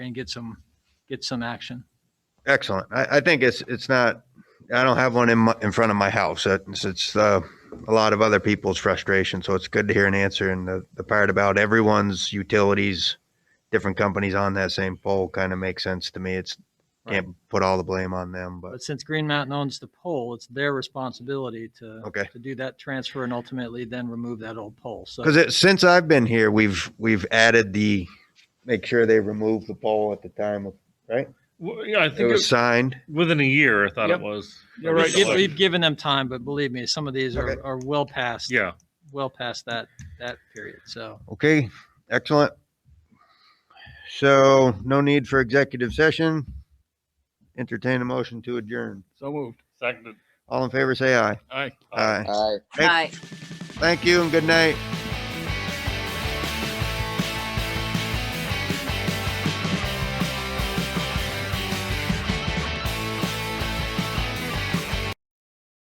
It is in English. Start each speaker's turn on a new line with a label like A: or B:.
A: and get some, get some action.
B: Excellent. I, I think it's, it's not, I don't have one in my, in front of my house. It's, it's, uh, a lot of other people's frustration. So it's good to hear an answer. And the, the part about everyone's utilities, different companies on that same pole kind of makes sense to me. It's, can't put all the blame on them, but
A: But since Green Mountain owns the pole, it's their responsibility to,
B: okay.
A: to do that transfer and ultimately then remove that old pole. So
B: Cause it, since I've been here, we've, we've added the, make sure they remove the pole at the time of-
C: Well, yeah, I
B: it
C: think
B: was
C: it,
B: signed.
C: within a year, I thought
A: Yep.
C: it was.
A: we've giv- we've given them time, but believe me, some of these
B: Okay.
A: are, are well past,
C: Yeah.
A: well past that, that period. So
B: Okay, excellent. So no need for executive session. Entertain a motion to adjourn.
C: So moved. Seconded.
B: All in favor, say aye.
C: Aye.
B: Aye.
D: Aye.
B: Thank- Thank you and good night.